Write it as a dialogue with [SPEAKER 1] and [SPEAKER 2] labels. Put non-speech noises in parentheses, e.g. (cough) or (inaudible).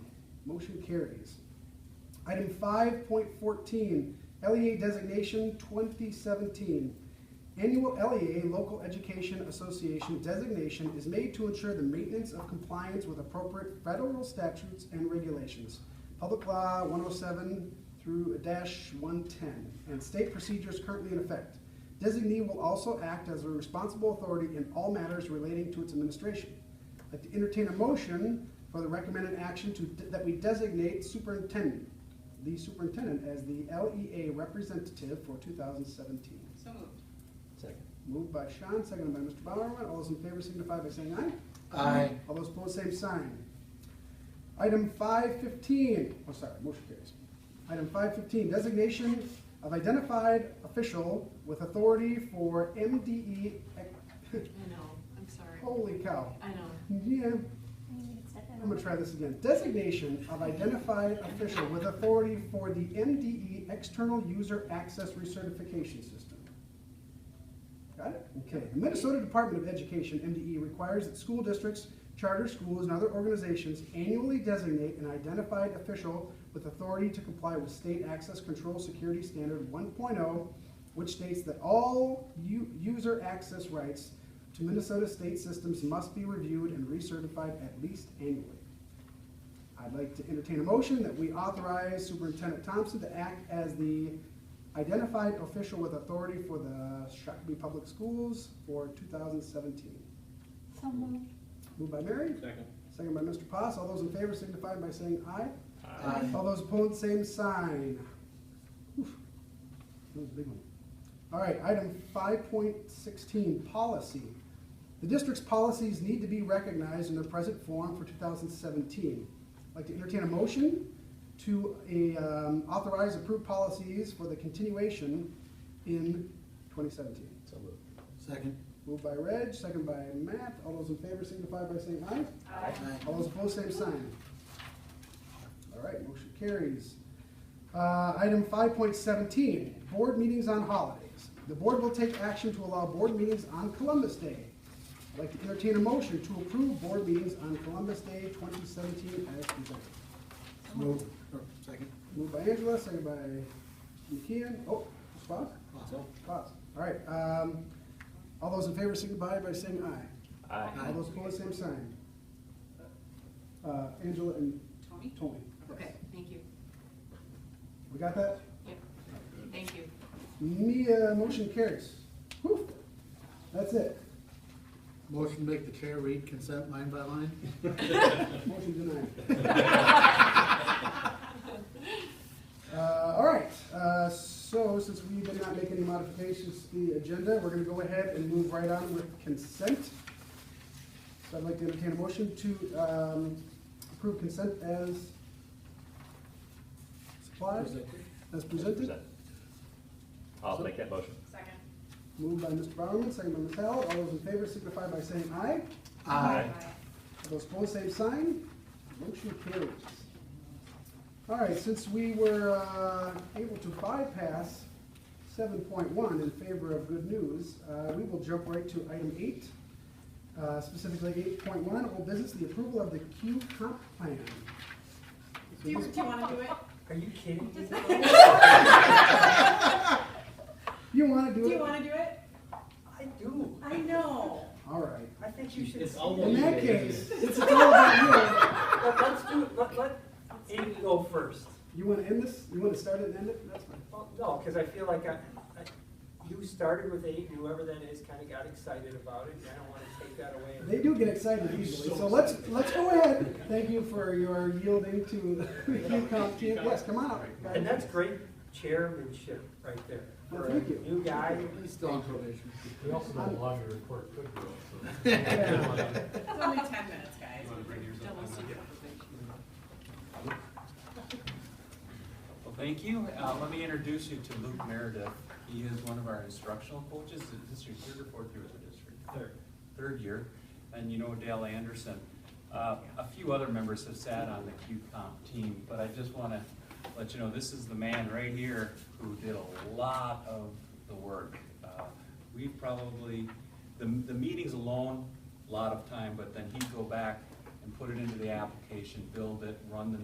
[SPEAKER 1] Motion carries. Item five point fourteen, LEA designation twenty seventeen. Annual LEA Local Education Association designation is made to ensure the maintenance of compliance with appropriate federal statutes and regulations, Public Law one oh seven through dash one ten, and state procedures currently in effect. Designee will also act as a responsible authority in all matters relating to its administration. I'd like to entertain a motion for the recommended action to, that we designate superintendent, the superintendent as the LEA representative for two thousand seventeen.
[SPEAKER 2] So moved.
[SPEAKER 3] Second.
[SPEAKER 1] Moved by Sean, seconded by Mr. Bowerman. All those in favor signify by saying aye.
[SPEAKER 3] Aye.
[SPEAKER 1] All those opposed, same sign. Item five fifteen, oh, sorry, motion carries. Item five fifteen, designation of identified official with authority for MDE, ec-
[SPEAKER 2] I know, I'm sorry.
[SPEAKER 1] (laughs) holy cow.
[SPEAKER 2] I know.
[SPEAKER 1] Yeah, I'm
[SPEAKER 4] I'm
[SPEAKER 1] gonna try this again. Designation of identified official with authority for the MDE External User Access Recertification System. Got it? Okay. The Minnesota Department of Education, MDE, requires that school districts, charter schools, and other organizations annually designate an identified official with authority to comply with State Access Control Security Standard 1.0, which states that all u- user access rights to Minnesota state systems must be reviewed and recertified at least annually. I'd like to entertain a motion that we authorize Superintendent Thompson to act as the identified official with authority for the Shakopee Public Schools for 2017.
[SPEAKER 4] So moved.
[SPEAKER 1] Moved by Mary,
[SPEAKER 3] Second.
[SPEAKER 1] second by Mr. Potts. All those in favor signify by saying aye.
[SPEAKER 3] Aye.
[SPEAKER 1] All those opposed, same sign. Oof. That was a big one. All right, item five point sixteen, policy. The district's policies need to be recognized in their present form for two thousand seventeen. I'd like to entertain a motion to uh, um, authorize approved policies for the continuation in twenty seventeen.
[SPEAKER 3] So moved.
[SPEAKER 5] Second.
[SPEAKER 1] Moved by Reg, second by Matt. All those in favor signify by saying aye.
[SPEAKER 2] Aye.
[SPEAKER 1] All those opposed, same sign. All right, motion carries. Uh, Item five point seventeen, board meetings on holidays. The board will take action to allow board meetings on Columbus Day. I'd like to entertain a motion to approve board meetings on Columbus Day twenty seventeen as presented.
[SPEAKER 5] Move. Or Second.
[SPEAKER 1] Moved by Angela, second by McKeon. Oh, Spock?
[SPEAKER 5] Awesome.
[SPEAKER 1] Pause. All right, um, all those in favor signify by saying aye.
[SPEAKER 3] Aye.
[SPEAKER 1] All those opposed, same sign. Uh, Angela and
[SPEAKER 2] Tony?
[SPEAKER 1] Tony. yes.
[SPEAKER 2] Okay, thank you.
[SPEAKER 1] We got that?
[SPEAKER 2] Yep. Thank you.
[SPEAKER 1] Mia, motion carries. Whew. That's it.
[SPEAKER 5] Motion to make the chair read consent line by line?
[SPEAKER 1] Motion denied.
[SPEAKER 2] (laughs)
[SPEAKER 1] Uh, all right, uh, so since we did not make any modifications to the agenda, we're gonna go ahead and move right on with consent. So I'd like to entertain a motion to, um, approve consent as supplied, as presented.
[SPEAKER 3] Presented. I'll make that motion.
[SPEAKER 2] (laughs) Second.
[SPEAKER 1] Moved by Mr. Bowerman, second by Ms. Howell. All those in favor signify by saying aye.
[SPEAKER 5] Aye.
[SPEAKER 1] Those opposed, same sign. Motion carries. All right, since we were uh, able to bypass seven point one in favor of good news, uh, we will jump right to item eight, uh, specifically eight point one, old business, the approval of the Q comp plan.
[SPEAKER 2] Do you, do you wanna do it?
[SPEAKER 6] Are you kidding me?
[SPEAKER 1] You wanna
[SPEAKER 6] Do
[SPEAKER 2] (laughs)
[SPEAKER 1] do
[SPEAKER 6] you
[SPEAKER 1] it?
[SPEAKER 6] wanna do it?
[SPEAKER 7] I do.
[SPEAKER 6] I know.
[SPEAKER 1] All right.
[SPEAKER 7] I think you should.
[SPEAKER 6] It's
[SPEAKER 7] see
[SPEAKER 6] almost-
[SPEAKER 1] In
[SPEAKER 7] it.
[SPEAKER 1] that case, it's all about
[SPEAKER 7] But let's do, let, let Amy go first.
[SPEAKER 1] you. You wanna end this? You wanna start it and end it? That's fine.
[SPEAKER 7] Well, no, because I feel like I, I, you started with eight, and whoever that is kind of got excited about it, and I don't want to take that away.
[SPEAKER 1] They do get excited easily, so let's, let's go ahead. Thank you for your yielding to the (laughs) UConn team. Yes, come on up. guys.
[SPEAKER 7] And that's great chairmanship right there.
[SPEAKER 1] Well, thank you.
[SPEAKER 7] For a New guy.
[SPEAKER 5] He's still on probation.
[SPEAKER 8] We also don't allow you to report good growth, so.
[SPEAKER 1] (laughs) Yeah.
[SPEAKER 2] It's only ten minutes, guys.
[SPEAKER 8] wanna bring yours up?
[SPEAKER 2] Don't listen to conversation.
[SPEAKER 9] Well, thank you. Uh, let me introduce you to Luke Meredith. He is one of our instructional coaches. Is this your third or fourth year with the district? Third. Third year. And you know Dale Anderson. Uh, a few other members have sat on the QComp team, but I just wanna let you know, this is the man right here who did a lot of the work. Uh, We probably, the, the meetings alone, a lot of time, but then he'd go back and put it into the application, build it, run the